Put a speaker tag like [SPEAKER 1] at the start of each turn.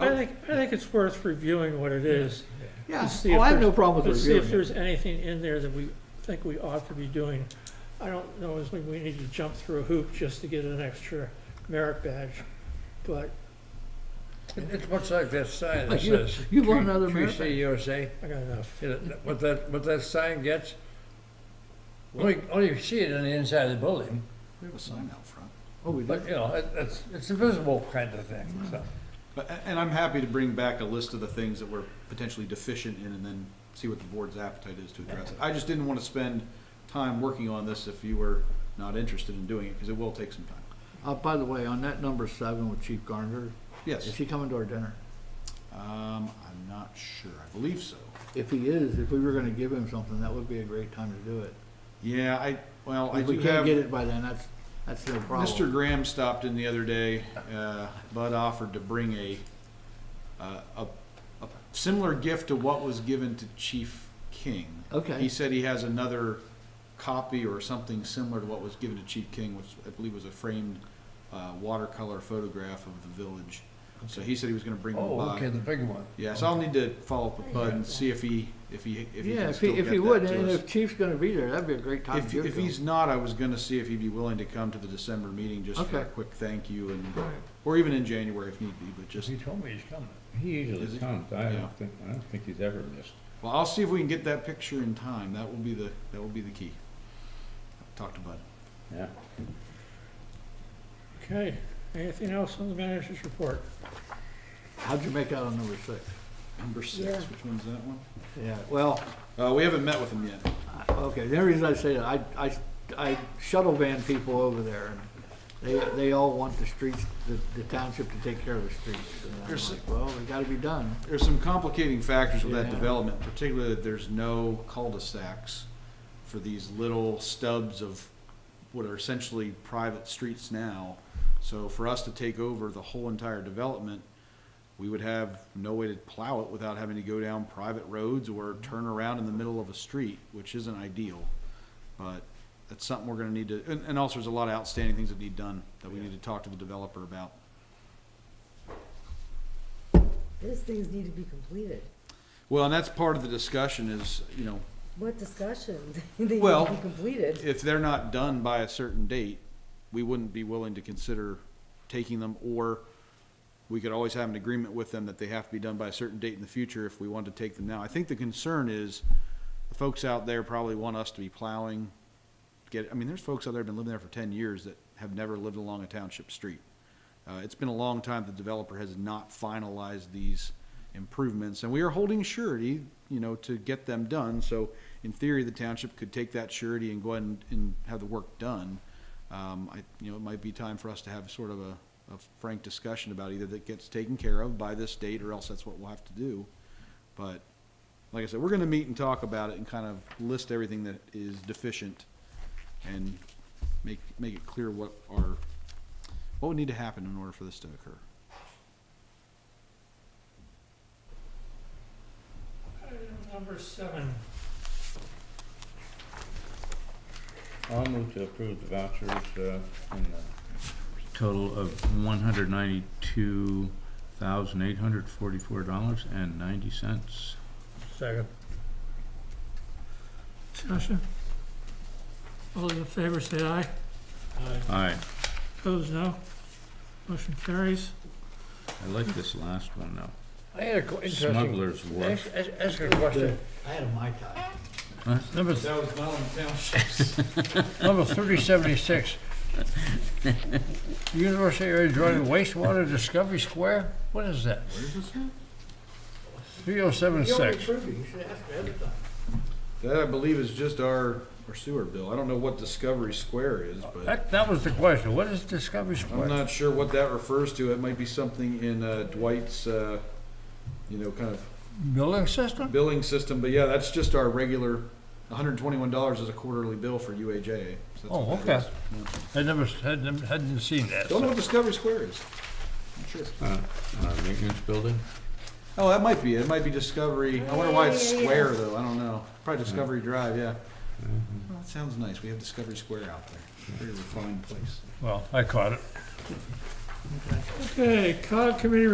[SPEAKER 1] think, I think it's worth reviewing what it is.
[SPEAKER 2] Yeah,
[SPEAKER 1] see if
[SPEAKER 2] oh, I have no
[SPEAKER 1] there's-
[SPEAKER 2] problem
[SPEAKER 1] Let's
[SPEAKER 2] with
[SPEAKER 1] see if
[SPEAKER 2] reviewing it.
[SPEAKER 1] there's anything in there that we think we ought to be doing. I don't know, if we we need to jump through a hoop just to get an extra merit badge, but
[SPEAKER 3] It- It's much like that sign that
[SPEAKER 2] Like you-
[SPEAKER 3] says.
[SPEAKER 2] you want
[SPEAKER 3] "Tree-
[SPEAKER 2] another
[SPEAKER 3] Tree
[SPEAKER 2] America?"
[SPEAKER 3] City USA,
[SPEAKER 1] I got enough.
[SPEAKER 3] You know, what that, what that sign gets, only, only you see it on the inside of the building,
[SPEAKER 2] We have a sign out front. Oh, we do?
[SPEAKER 3] but, you know, it, it's, it's a visible kind of thing, so.
[SPEAKER 4] But, and I'm happy to bring back a list of the things that we're potentially deficient in and then see what the board's appetite is to address it. I just didn't want to spend time working on this if you were not interested in doing it, because it will take some time.
[SPEAKER 2] Uh, by the way, on that number seven with Chief Garner, is
[SPEAKER 4] Yes,
[SPEAKER 2] he coming to our dinner?
[SPEAKER 4] um, I'm not sure, I believe so.
[SPEAKER 2] If he is, if we were gonna give him something, that would be a great time to do it.
[SPEAKER 4] Yeah, I, well, I
[SPEAKER 2] If we
[SPEAKER 4] do
[SPEAKER 2] can't get
[SPEAKER 4] have,
[SPEAKER 2] it by then, that's, that's no problem.
[SPEAKER 4] Mr. Graham stopped in the other day, uh, Bud offered to bring a, uh, a, a similar gift to what was given to Chief King. He
[SPEAKER 2] Okay,
[SPEAKER 4] said he has another copy or something similar to what was given to Chief King, which I believe was a framed uh, watercolor photograph of the village. So he said he was gonna bring one
[SPEAKER 3] Oh, okay,
[SPEAKER 4] by.
[SPEAKER 3] the big one.
[SPEAKER 4] Yeah, so I'll need to follow up with Bud and see if he, if he, if he
[SPEAKER 2] yeah,
[SPEAKER 4] can
[SPEAKER 2] if
[SPEAKER 4] still
[SPEAKER 2] he,
[SPEAKER 4] get
[SPEAKER 2] if
[SPEAKER 4] that
[SPEAKER 2] he would, and
[SPEAKER 4] to us.
[SPEAKER 2] if Chief's gonna be there, that'd be a great time to
[SPEAKER 4] If,
[SPEAKER 2] give it
[SPEAKER 4] if
[SPEAKER 2] to him.
[SPEAKER 4] he's not, I was gonna see if he'd be willing to come to the December meeting just for a
[SPEAKER 2] Okay.
[SPEAKER 4] quick thank you and,
[SPEAKER 2] Right.
[SPEAKER 4] or even in January if need be, but just,
[SPEAKER 3] He told me he's coming.
[SPEAKER 5] He
[SPEAKER 4] Is
[SPEAKER 5] usually
[SPEAKER 4] it?
[SPEAKER 5] comes. I
[SPEAKER 4] Yeah.
[SPEAKER 5] don't think, I don't think he's ever missed.
[SPEAKER 4] well, I'll see if we can get that picture in time. That will be the, that will be the key. Talk to Bud.
[SPEAKER 5] Yeah.
[SPEAKER 1] Okay, anything else on the manager's report?
[SPEAKER 2] How'd you make out on number six?
[SPEAKER 4] Number six, which one's that one?
[SPEAKER 2] Yeah, well,
[SPEAKER 4] Uh, we haven't met with him yet.
[SPEAKER 2] I- okay, the only reason I say that, I, I, I shuttle van people over there, and they, they all want the streets, the, the township to take care of the streets. And I'm
[SPEAKER 4] There's-
[SPEAKER 2] like, well, they gotta be done.
[SPEAKER 4] There's some complicating factors with that
[SPEAKER 2] Yeah.
[SPEAKER 4] development, particularly that there's no cul-de-sacs for these little stubs of what are essentially private streets now. So for us to take over the whole entire development, we would have no way to plow it without having to go down private roads or turn around in the middle of a street, which isn't ideal. But that's something we're gonna need to, and, and also there's a lot of outstanding things that need done that we need to talk to the developer about.
[SPEAKER 6] Those things need to be completed.
[SPEAKER 4] Well, and that's part of the discussion is, you know,
[SPEAKER 6] What discussion? They need
[SPEAKER 4] Well,
[SPEAKER 6] to be completed.
[SPEAKER 4] if they're not done by a certain date, we wouldn't be willing to consider taking them, or we could always have an agreement with them that they have to be done by a certain date in the future if we want to take them now. I think the concern is, the folks out there probably want us to be plowing, get, I mean, there's folks out there who've been living there for ten years that have never lived along a township street. Uh, it's been a long time the developer has not finalized these improvements, and we are holding surety, you know, to get them done, so in theory, the township could take that surety and go ahead and, and have the work done. Um, I, you know, it might be time for us to have sort of a, a frank discussion about either that gets taken care of by this date, or else that's what we'll have to do. But, like I said, we're gonna meet and talk about it and kind of list everything that is deficient and make, make it clear what our, what would need to happen in order for this to occur.
[SPEAKER 1] Item number seven.
[SPEAKER 5] I'll move to approve the vouchers, uh, in the total of one hundred ninety-two thousand eight hundred forty-four dollars and ninety cents.
[SPEAKER 1] Second. Discussion? All those in favor say aye.
[SPEAKER 5] Aye,
[SPEAKER 1] Opposed, no. Motion carries.
[SPEAKER 5] I like this last one though.
[SPEAKER 3] I had a co- interesting,
[SPEAKER 5] Smuggler's
[SPEAKER 3] ask,
[SPEAKER 5] Wharf.
[SPEAKER 3] ask ask a question.
[SPEAKER 2] I had a Mai Tai.
[SPEAKER 5] Huh? Number, th-
[SPEAKER 4] That was not on township.
[SPEAKER 3] Number thirty seventy-six. University area Joint wastewater discovery square, what is that? Three oh seven
[SPEAKER 2] You already
[SPEAKER 3] six.
[SPEAKER 2] approved it, you should ask me every time.
[SPEAKER 4] That I believe is just our, our sewer bill. I don't know what Discovery Square is, but
[SPEAKER 3] That, that was the question, what is discovery square?
[SPEAKER 4] I'm not sure what that refers to. It might be something in uh, Dwight's, uh, you know, kind of
[SPEAKER 3] Building system?
[SPEAKER 4] billing system, but yeah, that's just our regular, hundred and twenty-one dollars is a quarterly bill for UAJ. So that's
[SPEAKER 3] Oh,
[SPEAKER 4] what that
[SPEAKER 3] okay. I never, hadn't, hadn't seen
[SPEAKER 4] is.
[SPEAKER 3] that.
[SPEAKER 4] Don't know
[SPEAKER 3] so.
[SPEAKER 4] what Discovery Square is. I'm sure.
[SPEAKER 5] uh, uh, maintenance building?
[SPEAKER 4] Oh, that might be, it. it might be Discovery, I wonder why it's square though, I don't know. Probably Discovery Drive, yeah. Well, that sounds nice. We have Discovery Square out there. It's a fine place.
[SPEAKER 3] Well, I caught it.
[SPEAKER 1] Okay, COG Committee